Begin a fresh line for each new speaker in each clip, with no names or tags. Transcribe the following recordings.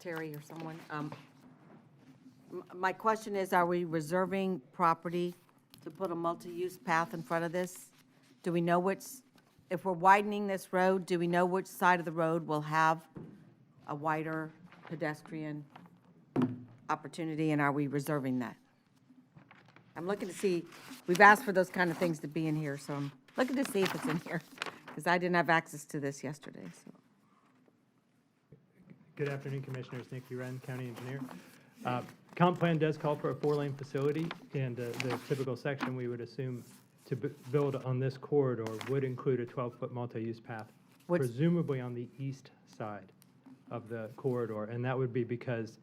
Terry or someone. Um, m- My question is, are we reserving property to put a multi-use path in front of this? Do we know which, if we're widening this road, do we know which side of the road will have a wider pedestrian opportunity, and are we reserving that? I'm looking to see, we've asked for those kind of things to be in here, so I'm looking to see if it's in here, because I didn't have access to this yesterday, so.
Good afternoon, Commissioners. Nick Uren, County Engineer. Uh, Comp plan does call for a four-lane facility, and uh, the typical section we would assume to bu- build on this corridor would include a 12-foot multi-use path,
What's-
presumably on the east side of the corridor. And that would be because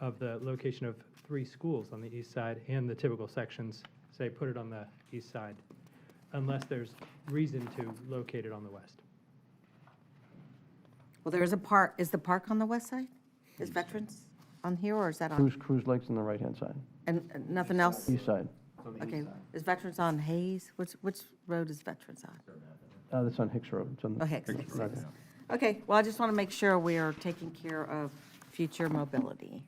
of the location of three schools on the east side and the typical sections, say, put it on the east side, unless there's reason to locate it on the west.
Well, there is a park, is the park on the west side? Is Veterans on here, or is that on,
Cruise, Cruise Lake's on the right-hand side,
and and nothing else?
east side.
Okay, is Veterans on Hayes? Which, which road is Veterans on?
Uh, That's on Hicks Road. It's on the-
Oh, Hicks, Hicks,
right.
Hicks. Okay, well, I just want to make sure we are taking care of future mobility.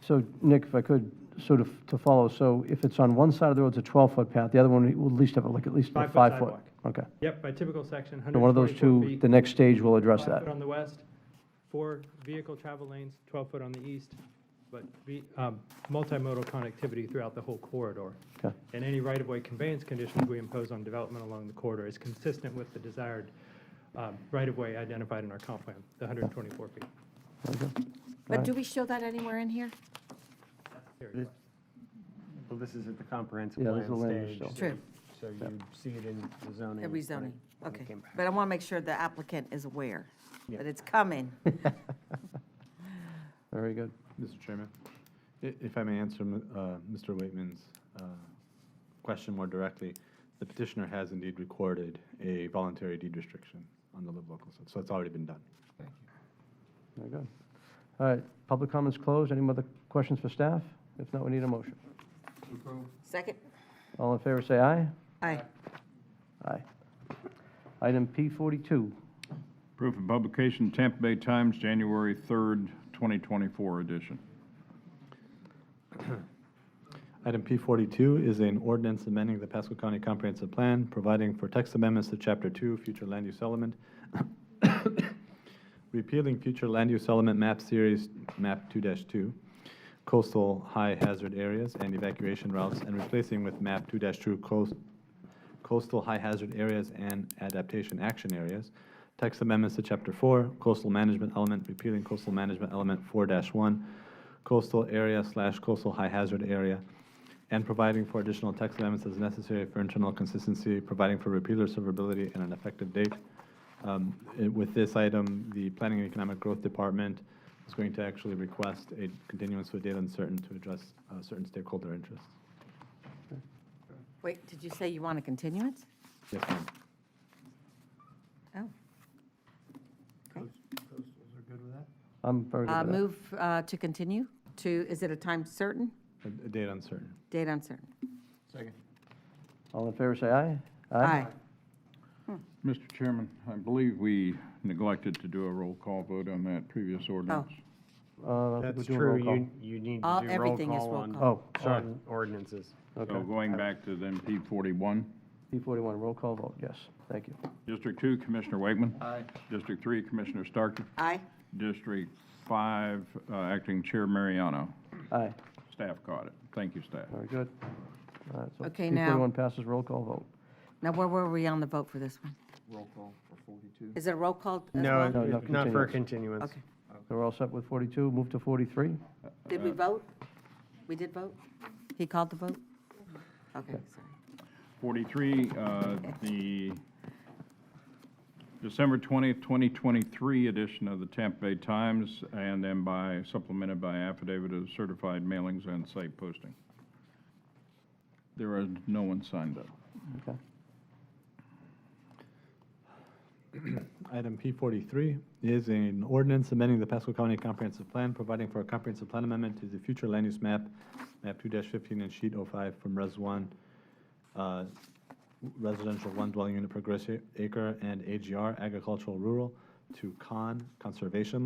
So, Nick, if I could, sort of to follow, so if it's on one side of the road, it's a 12-foot path, the other one will at least have like at least a
Five-foot
five-foot.
sidewalk.
Okay.
Yep, by typical section,
So one of those
124
two,
feet.
the next stage will address
Five
that.
foot on the west, four vehicle travel lanes, 12-foot on the east, but ve- um, multimodal connectivity throughout the whole corridor.
Okay.
And any right-of-way conveyance conditions we impose on development along the corridor is consistent with the desired um, right-of-way identified in our comp plan, the 124 feet.
Very good.
But
Right.
do we show that anywhere in here?
Here
This-
you
Well, this is at the comprehensive
Yeah,
plan
this
stage.
is the land use
still. True.
So you see it in the zoning.
At
when it-
rezoning,
when it
okay.
came back.
But I want to make sure the applicant is aware
Yeah.
that it's coming.
Very good.
Mr. Chairman, i- if I may answer m- uh, Mr. Waitman's uh, question more directly, the petitioner has indeed recorded a voluntary deed restriction on the live local, so- so it's already been done.
Very good. All right, public comments closed. Any other questions for staff? If not, we need a motion.
Second?
All in favor, say aye.
Aye.
Aye. Item P42,
Proof of publication, Tampa Bay Times, January 3rd, 2024 edition.
Item P42 is an ordinance amending the Pasco County Comprehensive Plan, providing for text amendments to Chapter 2, Future Land Use Element, repealing future land use element map series, map 2-2, coastal high hazard areas and evacuation routes, and replacing with map 2-2 coast- coastal high hazard areas and adaptation action areas, text amendments to Chapter 4, coastal management element, repealing coastal management element 4-1, coastal area slash coastal high hazard area, and providing for additional text amendments as necessary for internal consistency, providing for repealer severability and an effective date. Um, it- With this item, the Planning and Economic Growth Department is going to actually request a continuance with date uncertain to address uh, certain stakeholder interests.
Wait, did you say you want a continuance?
Yes, ma'am.
Oh.
I'm very
Uh,
good with that.
Move uh, to continue to, is it a time certain?
A a date uncertain.
Date uncertain.
All in favor, say aye.
Aye.
Mr. Chairman, I believe we neglected to do a roll call vote on that previous ordinance.
Uh, I think we're
That's
doing roll
true,
call.
you, you need
All-
to do roll
everything is
call
roll
on.
call.
Oh, sorry.
on Ordinances.
Okay.
So going back to then P41,
P41, roll call vote, yes. Thank you.
District 2, Commissioner Wakeman. Aye. District 3, Commissioner Starkey.
Aye.
District 5, uh, Acting Chair Mariano.
Aye,
Staff caught it. Thank you, staff.
very good. All right, so
Okay, now-
P41 passes roll call vote.
Now, where were we on the vote for this one?
roll call for 42.
Is it a roll call as
No,
well?
No, no,
n- not for a continuance.
Okay.
So we're all set with 42, move to 43?
Did we vote? We did vote? He called the vote? Okay, sorry.
43, uh, the December 20th, 2023 edition of the Tampa Bay Times, and then by, supplemented by affidavit of certified mailings and site posting. There is no one signed up.
Okay.
Item P43 is an ordinance amending the Pasco County Comprehensive Plan, providing for a comprehensive plan amendment to the future land use map, map 2-15 and sheet 05 from Res 1, uh, residential one dwelling unit per gross acre and AGR, agricultural rural, to CON, conservation